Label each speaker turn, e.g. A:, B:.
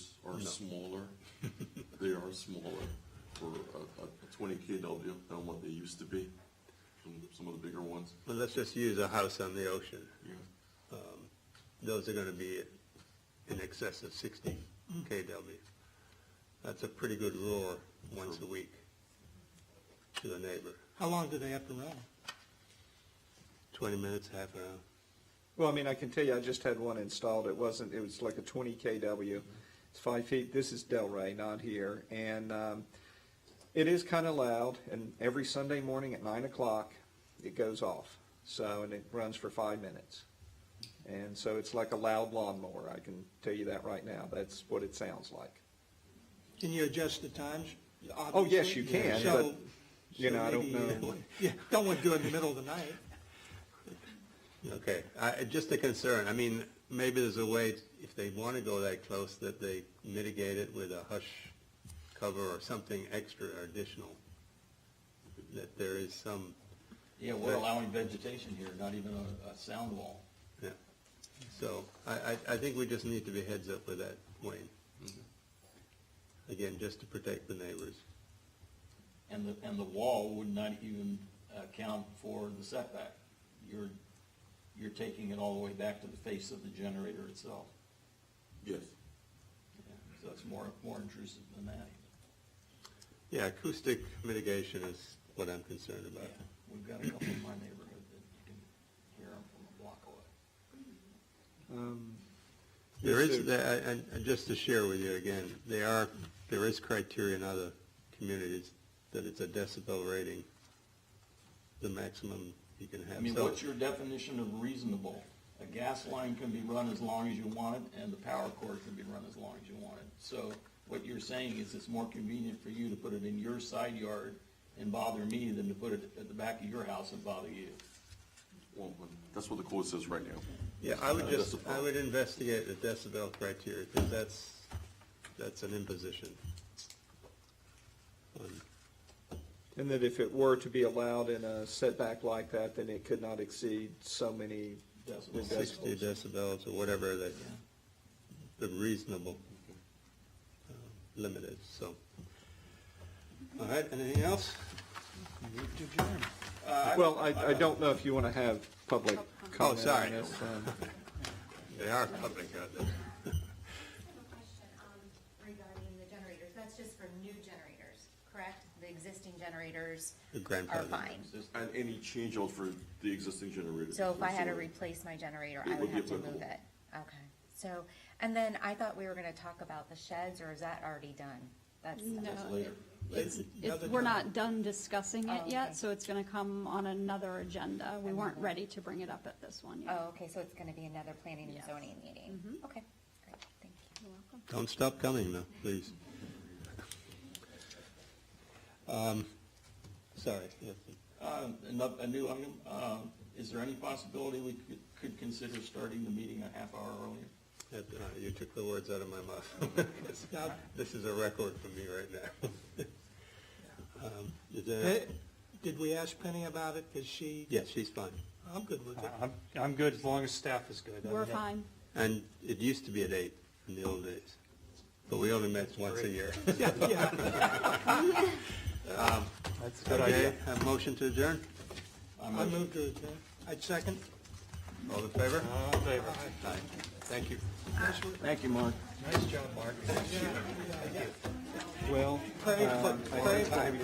A: are smaller. They are smaller for a, a twenty KW than what they used to be, some, some of the bigger ones,
B: Well, let's just use a house on the ocean.
A: yeah.
B: Um, Those are gonna be in excess of sixty KW. That's a pretty good roar once a week to the neighbor.
C: How long do they have to run?
B: Twenty minutes, half an hour.
D: Well, I mean, I can tell you, I just had one installed. It wasn't, it was like a twenty KW. It's five feet. This is Delray, not here. And, um, it is kind of loud and every Sunday morning at nine o'clock, it goes off. So, and it runs for five minutes. And so it's like a loud lawnmower. I can tell you that right now. That's what it sounds like.
C: Can you adjust the times?
D: Oh, yes, you
C: Obviously.
D: can,
C: So-
D: but, you
C: so
D: know, I don't
C: maybe,
D: know.
C: uh, Yeah, don't want to do it in the middle of the night.
B: Okay, I, just a concern, I mean, maybe there's a way, if they want to go that close, that they mitigate it with a hush cover or something extra or additional, that there is some,
E: Yeah, we're allowing vegetation here, not even a, a sound wall.
B: yeah. So, I, I, I think we just need to be heads up with that, Wayne. Mm-hmm. Again, just to protect the neighbors.
E: And the, and the wall would not even account for the setback. You're, you're taking it all the way back to the face of the generator itself.
A: Yes.
E: Yeah, So it's more, more intrusive than that.
B: Yeah, acoustic mitigation is what I'm concerned
E: Yeah,
B: about.
E: We've got a couple in my neighborhood that you can hear them from a block away.
D: Um,
B: There
D: Yes,
B: is,
D: sir.
B: there- and, and- and just to share with you again, they are, there is criteria in other communities that it's a decibel rating, the maximum you can have.
E: I mean,
B: So-
E: what's your definition of reasonable? A gas line can be run as long as you want it, and the power cord can be run as long as you want it. So what you're saying is it's more convenient for you to put it in your side yard and bother me than to put it at the back of your house and bother you.
A: Well, that's what the code says right now.
B: Yeah, I would
A: Uh,
B: just,
A: decibel.
B: I would investigate the decibel criteria, because that's, that's an imposition. Um,
D: And that if it were to be allowed in a setback like that, then it could not exceed so many
E: Decibels.
B: Sixty decibels or whatever that, the reasonable uh, limit is, so. All right, anything else?
D: Well, I, I don't know if you want to have public comment
B: sorry.
D: on this. um,
B: They are public, aren't they?
F: I have a question um, regarding the generators. That's just for new generators, correct? The existing generators
B: The
F: are
B: grandfathered.
F: fine.
A: And any change out for the existing generator.
F: So if I had to
A: Sorry.
F: replace my generator,
A: It
F: I
A: would
F: would
A: be
F: have to move
A: applicable.
F: it. Okay. So, and then I thought we were going to talk about the sheds, or is that already done? That's,
E: That's
G: No,
E: later.
G: it's,
C: Another
G: it- we're
C: time.
G: not done discussing
F: Oh,
G: it
F: okay.
G: yet, so it's gonna come on another agenda. We weren't ready to bring it up at this one yet.
F: oh, okay, so it's going to be another planning and
G: Yes. Mm-hmm.
F: zoning meeting? Okay, great, thank you.
G: You're welcome.
B: Don't stop coming, though, please. Um, Sorry, yes,
E: Uh, ano- a new item, uh, is there any possibility we could, could consider starting the meeting a half hour earlier?
B: that, uh, you took the words out of my mouth. This is a record for me right now. Um, Is there,
C: Eh, Did we ask Penny about it? Is she,
B: yes, she's fine.
C: I'm good with it.
H: I'm, I'm good as long as staff is good. I mean,
G: We're
H: that-
G: fine.
B: And it used to be at eight in the old days, but we only met once a year. Um,
C: Yeah, yeah.
H: That's a good idea.
B: Okay, have a motion to adjourn?
C: I moved to adjourn. I'd second.
B: All in favor?
H: All in favor?
B: Aye. Thank you.
E: Thank you, Mark.
C: Nice job, Mark.
D: Well,
C: Pray for-
D: um, I
C: pray
D: I
C: for-
D: have